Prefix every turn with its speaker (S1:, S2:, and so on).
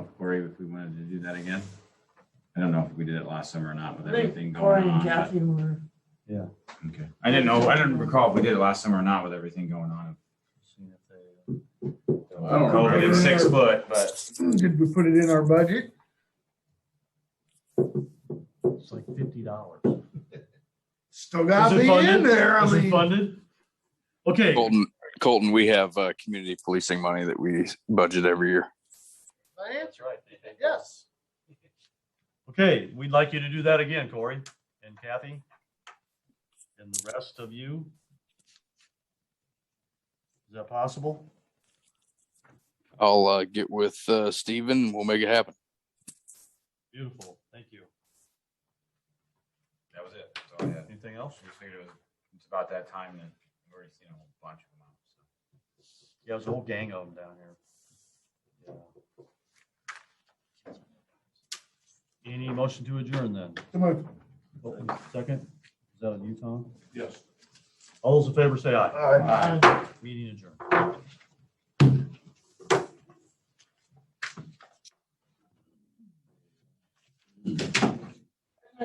S1: February if we wanted to do that again. I don't know if we did it last summer or not with
S2: I think
S1: everything going
S2: Corey and
S1: on. but-
S2: Kathy were,
S1: Okay. I didn't know, I didn't recall if we did it last summer or not with everything going on.
S3: Seeing if they-
S4: I don't
S1: COVID
S4: remember.
S1: and six foot, but
S4: Did we put it in our budget?
S3: It's like fifty dollars.
S4: Still gotta be in there, I mean.
S3: Funded? Okay,
S5: Colton, Colton, we have uh, community policing money that we budget every year.
S4: My answer, yes.
S3: okay, we'd like you to do that again, Corey and Kathy. And the rest of you. Is that possible?
S5: I'll uh, get with uh, Steven. We'll make it happen.
S3: Beautiful, thank you.
S1: that was it. That's all I had.
S3: Anything else?
S1: I just figured it was, it's about that time that we've already seen a whole bunch of them out, so.
S3: Yeah, there's a whole gang of them down here. Yeah. Any motion to adjourn then?
S4: Come on.
S3: Colton, Second, is that on you, Tom?
S4: Yes.
S3: All those in favor say aye.
S4: All right.
S2: uh,
S3: Meeting adjourned.